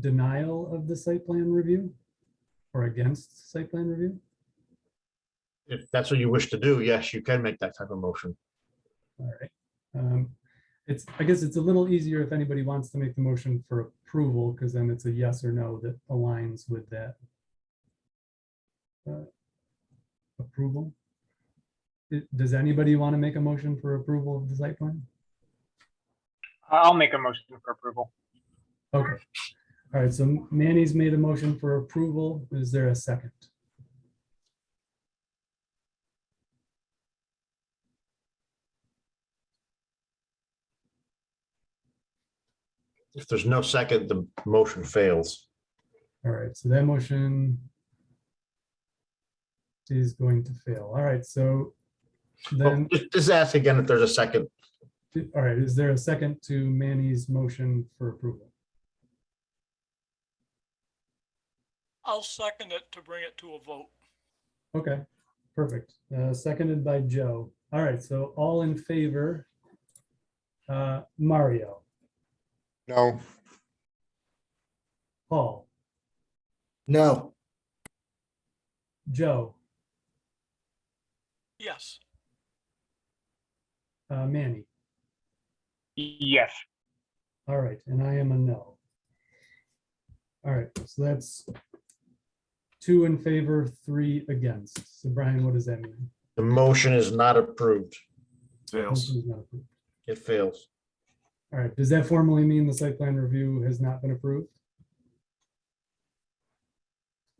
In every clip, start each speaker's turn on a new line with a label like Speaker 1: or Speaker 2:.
Speaker 1: denial of the site plan review? Or against site plan review?
Speaker 2: If that's what you wish to do, yes, you can make that type of motion.
Speaker 1: All right. Um, It's, I guess it's a little easier if anybody wants to make the motion for approval, because then it's a yes or no that aligns with that. uh, Approval. It- Does anybody want to make a motion for approval of the site plan?
Speaker 3: I'll make a motion for approval.
Speaker 1: Okay. All right, so Manny's made a motion for approval. Is there a second?
Speaker 2: If there's no second, the motion fails.
Speaker 1: All right, so that motion is going to fail. All right, so
Speaker 2: Well,
Speaker 1: then,
Speaker 2: Oh, Just just ask again if there's a second.
Speaker 1: all right, is there a second to Manny's motion for approval?
Speaker 4: I'll second it to bring it to a vote.
Speaker 1: Okay, perfect. Uh, Seconded by Joe. All right, so all in favor? Uh, Mario,
Speaker 5: No.
Speaker 1: Paul,
Speaker 5: No.
Speaker 1: Joe,
Speaker 4: Yes,
Speaker 1: uh, Manny.
Speaker 3: Yes,
Speaker 1: All right, and I am a no. All right, so that's two in favor, three against. So Brian, what does that mean?
Speaker 2: The motion is not approved.
Speaker 1: Motion is not approved.
Speaker 2: It fails.
Speaker 1: All right, does that formally mean the site plan review has not been approved?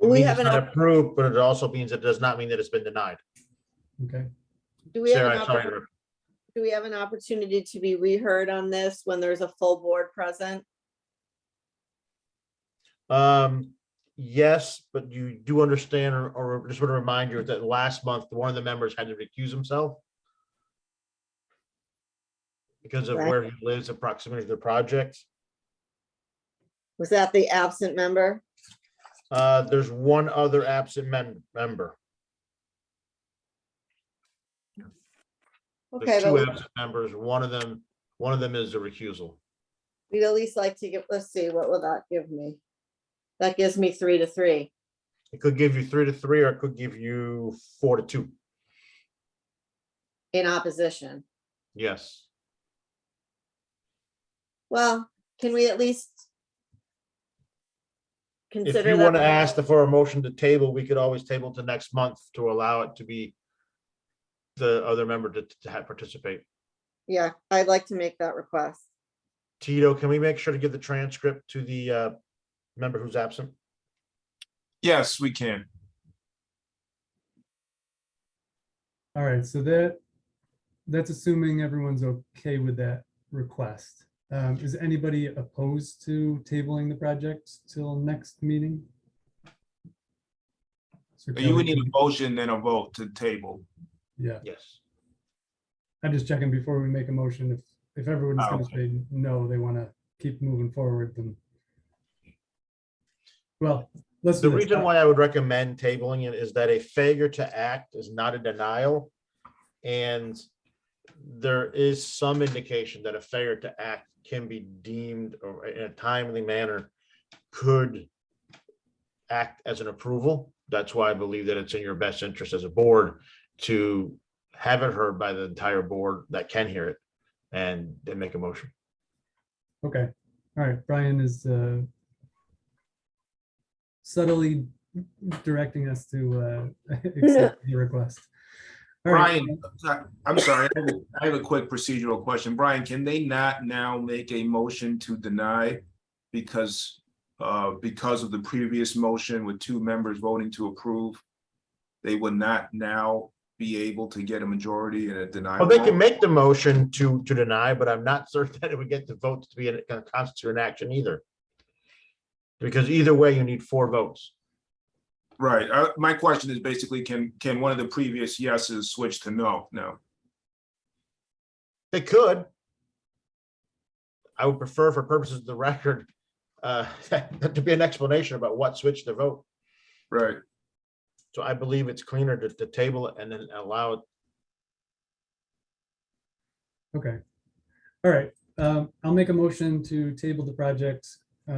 Speaker 2: It
Speaker 6: We
Speaker 2: means
Speaker 6: have
Speaker 2: it's
Speaker 6: an
Speaker 2: not
Speaker 6: op-
Speaker 2: Approved, but it also means it does not mean that it's been denied.
Speaker 1: Okay,
Speaker 6: Do we have,
Speaker 2: Sarah,
Speaker 6: an
Speaker 2: I'm sorry.
Speaker 6: oppor-
Speaker 2: to interrupt.
Speaker 6: do we have an opportunity to be reheard on this when there's a full board present?
Speaker 2: Um, yes, but you do understand or, or just want to remind you that last month, one of the members had to recuse himself. Because of where he lives and proximity to the project.
Speaker 6: Was that the absent member?
Speaker 2: Uh, there's one other absent mem- member.
Speaker 6: Okay,
Speaker 2: There's
Speaker 6: but
Speaker 2: two absent members. One of them, one of them is a recusal.
Speaker 6: we'd at least like to get, let's see, what will that give me? That gives me three to three.
Speaker 2: It could give you three to three, or it could give you four to two.
Speaker 6: in opposition.
Speaker 2: Yes.
Speaker 6: Well, can we at least
Speaker 2: If
Speaker 6: consider?
Speaker 2: you
Speaker 6: that
Speaker 2: want to
Speaker 6: one?
Speaker 2: ask for a motion to table, we could always table to next month to allow it to be the other member to, to have participate.
Speaker 6: Yeah, I'd like to make that request.
Speaker 2: Tito, can we make sure to give the transcript to the, uh, member who's absent?
Speaker 7: Yes, we can.
Speaker 1: all right, so that, that's assuming everyone's okay with that request. Um, Is anybody opposed to tabling the project till next meeting? So
Speaker 7: You would
Speaker 1: Kelly,
Speaker 7: need a motion and a vote to table.
Speaker 1: Yeah,
Speaker 2: Yes.
Speaker 1: I'm just checking before we make a motion. If, if everyone's
Speaker 7: Ah,
Speaker 2: Oh,
Speaker 1: gonna say no, they wanna keep moving forward, then. Well, let's.
Speaker 2: The
Speaker 1: do this.
Speaker 2: reason why I would recommend tabling it is that a failure to act is not a denial. And there is some indication that a failure to act can be deemed or in a timely manner could act as an approval. That's why I believe that it's in your best interest as a board to have it heard by the entire board that can hear it and then make a motion.
Speaker 1: Okay, all right, Brian is uh, subtly directing us to uh, accept the request. All right,
Speaker 7: Brian, I- I'm sorry, I have a- I have a quick procedural question. Brian, can they not now make a motion to deny? Because, uh, because of the previous motion with two members voting to approve, they would not now be able to get a majority and a denial.
Speaker 2: Well, Oh, they can
Speaker 7: vote?
Speaker 2: make the motion to, to deny, but I'm not certain that it would get the votes to be in, gonna constitute an action either. Because either way, you need four votes.
Speaker 7: Right, uh, my question is basically, can, can one of the previous yeses switch to no, no?
Speaker 2: They could. I would prefer for purposes of the record, uh, to be an explanation about what switched the vote.
Speaker 7: Right,
Speaker 2: So I believe it's cleaner to, to table it and then allow it.
Speaker 1: okay, all right. um, I'll make a motion to table the project